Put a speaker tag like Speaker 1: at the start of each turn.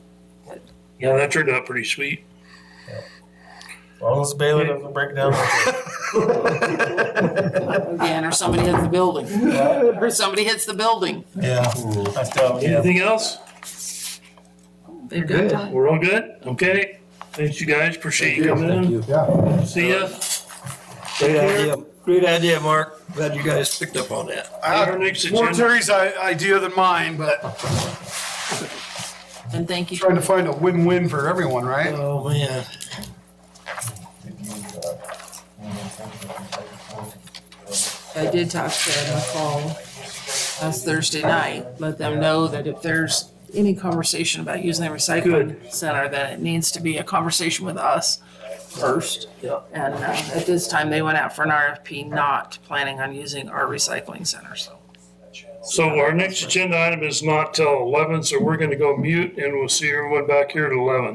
Speaker 1: Yeah, that turned out pretty sweet.
Speaker 2: As long as Bailey doesn't break down.
Speaker 3: Again, or somebody hits the building, or somebody hits the building.
Speaker 2: Yeah, I still, yeah.
Speaker 1: Anything else?
Speaker 3: They've
Speaker 4: Good.
Speaker 3: got time.
Speaker 1: We're all good? Okay. Thanks, you guys. Appreciate you coming in.
Speaker 4: Yeah.
Speaker 1: See ya.
Speaker 5: Great idea, great idea, Mark. Glad you guys picked up on that.
Speaker 1: I had our next
Speaker 4: More
Speaker 1: agenda.
Speaker 4: Terry's i- idea than mine, but
Speaker 3: And thank you.
Speaker 4: trying to find a win-win for everyone, right?
Speaker 5: Oh, man.
Speaker 3: I did talk to Ed McCall last Thursday night, let them know that if there's any conversation about using the recycling center, that it needs to be a conversation with us first.
Speaker 5: Yeah.
Speaker 3: And uh, at this time, they went out for an RFP, not planning on using our recycling center, so.
Speaker 1: So our next agenda item is not till eleven, so we're gonna go mute and we'll see everyone back here at eleven.